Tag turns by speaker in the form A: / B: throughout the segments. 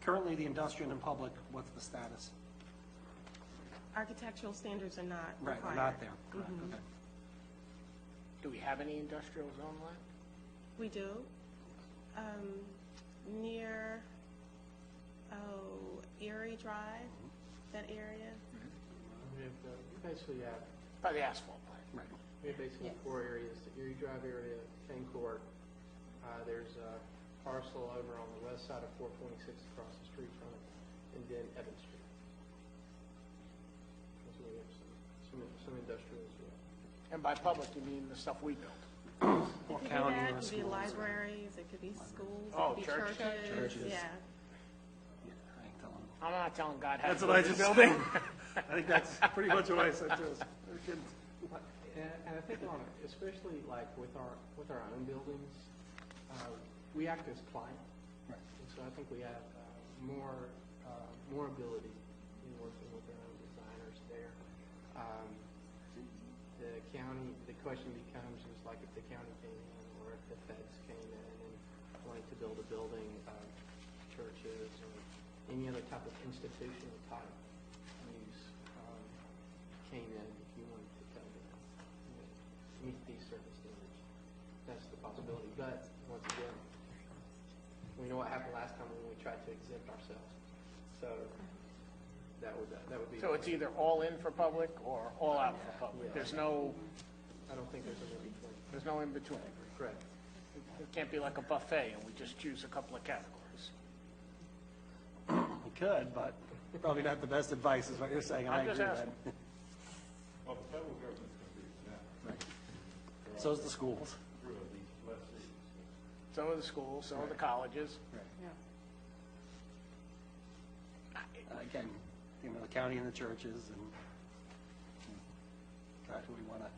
A: Currently, the industrial and public, what's the status?
B: Architectural standards are not
A: Right,
B: required.
A: we're not there, correct, okay.
C: Do we have any industrial zone land?
B: We do. Um, near, oh, Erie Drive, that area.
D: We have the, we uh, basically have,
C: By the asphalt
B: Mm-hmm.
C: plant.
A: Right,
D: we have basically
B: Yes.
D: four areas, the Erie Drive area, Kane Court. Uh, there's a parcel over on the west side of four twenty-six across the street from it, and then Evans Street. So we have some, some, some industrial as well.
C: And by public, you mean the stuff we built?
A: Or
B: It could be
A: county or
B: that, it could be
A: schools or-
B: libraries, it could be schools, it
C: Mm-hmm. Oh,
B: could be
C: churches.
B: churches,
A: Churches.
B: yeah.
A: yeah, I ain't telling them.
C: I'm not telling God how to
A: That's
C: build
A: what I
C: this
A: just-
C: building.
A: I think that's pretty much what I said to us. Our kids-
D: And, and I think on, especially like with our, with our own buildings, uh, we act as client.
A: Right.
D: And so I think we have uh, more, uh, more ability in working with our own designers there. Um, The county, the question becomes, is like if the county came in or if the feds came in and wanted to build a building, um, churches or any other type of institutional type use, um, came in if you wanted to come in, you know, meet these certain standards. That's the possibility, but once again, we know what happened last time when we tried to exempt ourselves. So that would, that would be,
C: So it's
D: I
C: either all in for public or all out for public. There's no,
D: don't think there's a in between.
C: there's no in between.
D: Correct.
C: It can't be like a buffet and we just choose a couple of categories.
A: We could, but probably not the best advice is what you're saying, and I
C: I'm
A: agree
C: just
A: with that.
E: Well, the federal government's going to do that,
A: So's the schools.
E: through these less cities.
C: Some of the schools, some of the colleges.
A: Uh, Again, you know, the county and the churches and God, who we want to,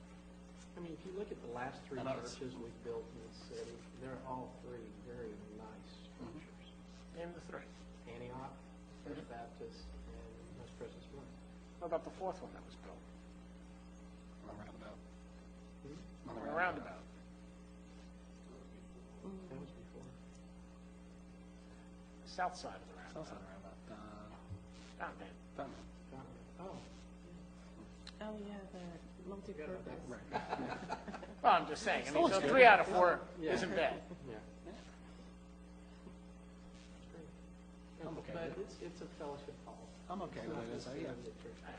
D: I mean, if you look at the last three
A: I know it's-
D: churches we've built in the city, they're all three very nice structures.
C: Name the three.
D: Antioch, First Baptist, and Most Precious Blood.
C: What about the fourth one that was built?
A: on the roundabout. On the
C: Or a roundabout?
D: That was before.
C: South side of the roundabout.
A: South side of the roundabout. Uh,
C: Not bad.
A: Fountain.
D: Conrad. Oh,
B: Oh, yeah, the multi-purpose.
C: Well, I'm just saying, I mean, so three out of four
D: Yeah.
C: isn't bad.
D: yeah. Great. But it's, it's a fellowship hall.
A: I'm okay with it, as I, yeah.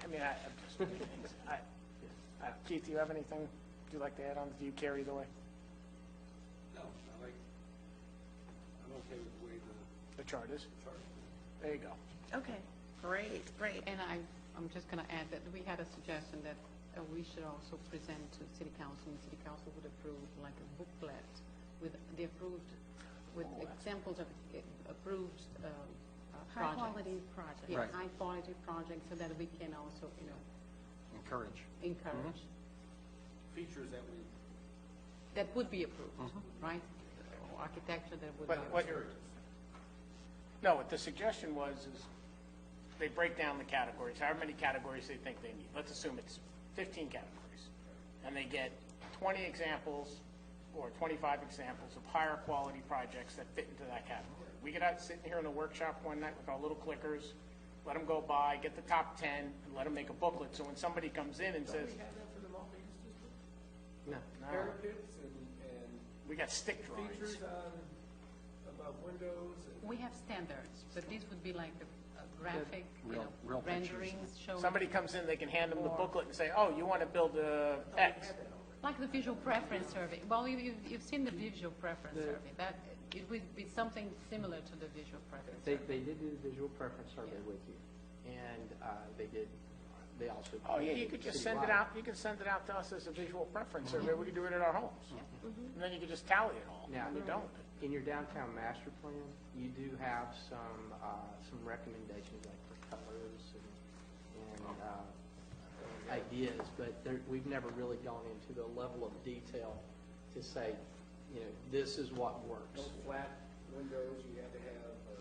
C: I mean, I, I'm just, I, I- Keith, do you have anything you'd like to add on? Do you care either way?
F: No, I like, I'm okay with the way the
C: The chart is?
F: chart is.
C: There you go.
B: Okay, great, great.
G: And I, I'm just going to add that we had a suggestion that uh, we should also present to city council, and city council would approve like a booklet with the approved, with examples of uh, approved um, uh, projects.
B: High-quality project.
G: Yeah,
A: Right.
G: high-quality projects, so that we can also, you know,
A: Encourage.
G: encourage,
F: Mm-hmm. Features that we,
G: that would be approved,
A: Mm-hmm.
G: right? Or Architecture that would be
C: But what,
G: approved.
C: no, what the suggestion was is they break down the categories, however many categories they think they need. Let's assume it's fifteen categories. And they get twenty examples or twenty-five examples of higher quality projects that fit into that category. We get out sitting here in a workshop one night with our little clickers, let them go by, get the top ten, and let them make a booklet. So when somebody comes in and says,
F: have that for the multi-use district,
D: No,
F: parapets and, and
C: we got stick drawings.
F: features on, above windows and.
G: We have standards, but this would be like a- a graphic, you
A: Real-
G: know,
A: real pictures.
G: renderings showing.
C: Somebody comes in, they can hand them the booklet and say, oh, you want to build a X.
G: Like the visual preference survey. Well, you, you've, you've seen the visual preference survey. That, it would be something similar to the visual preference
D: They,
G: survey.
D: they did do the visual preference survey with you, and uh, they did, they also.
C: Oh, yeah, you could just send it
D: citywide.
C: out, you can send it out to us as a visual preference survey, we could do it at our homes. And then you could just tally it all,
D: Mm-hmm. Yeah.
C: and you don't.
D: In your downtown master plan, you do have some, uh, some recommendations like for colors and, and, uh, ideas, but there, we've never really gone into the level of detail to say, you know, this is what works.
F: No flat windows, you had to have, uh.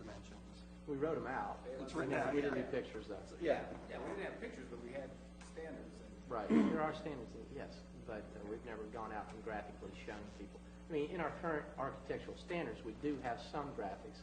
A: dimensions.
D: We wrote them out.
F: It's
A: written out,
D: We didn't do pictures though.
F: Yeah, yeah, we didn't have pictures, but we had standards and.
D: Right, there are standards, yes, but uh, we've never gone out and graphically shown people. I mean, in our current architectural standards, we do have some graphics,